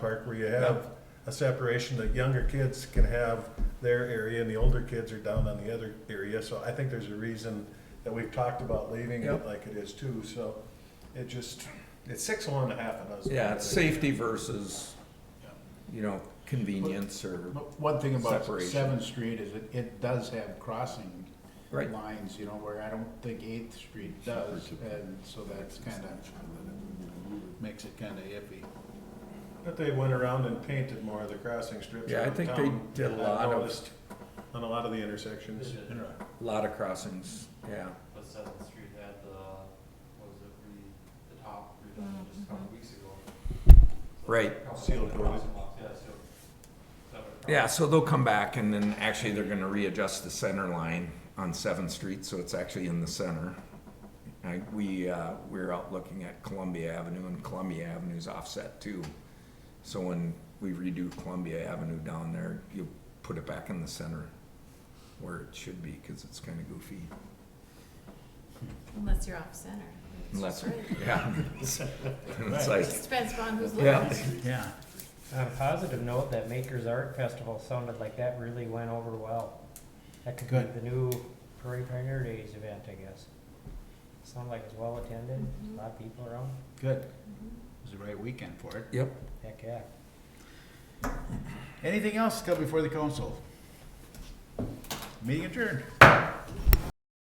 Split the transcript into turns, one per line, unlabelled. park where you have a separation that younger kids can have their area and the older kids are down on the other area. So I think there's a reason that we've talked about leaving it
Yep.
like it is too, so it just, it's six of one and a half of us.
Yeah, it's safety versus,
Yeah.
you know, convenience or,
But One thing about
Separation.
Seventh Street is it, it does have crossing
Right.
lines, you know, where I don't think Eighth Street does, and so that's kind of, makes it kind of iffy.
But they went around and painted more of the crossing strips.
Yeah, I
around
think they
town.
did a
I've
lot of-
noticed On a lot of the intersections.
They did.
a lot of crossings, yeah.
But Seventh Street had the, what was it, re, the top redone just a couple weeks ago. So,
Right.
a couple of
Sealed
the
doors.
crossing blocks, Yeah, sealed. Separate
Yeah, so they'll come back and then actually they're gonna readjust the center line on Seventh Street, so it's actually in the center. I, we, uh, we're out looking at Columbia Avenue and Columbia Avenue's offset too. So when we redo Columbia Avenue down there, you put it back in the center where it should be, cause it's kinda goofy.
Unless you're off center. It's
Unless,
just right.
yeah. It's like,
Just depends upon who's
Yeah.
looking.
Yeah.
On a positive note, that Maker's Art Festival sounded like that really went over well. That could be
Good.
the new Prairie Pioneer Days event, I guess. Sounded like it's well attended, a lot of people around,
Good. It was the right weekend for it.
yep,
heck yeah.
Anything else come before the council? Meeting adjourned.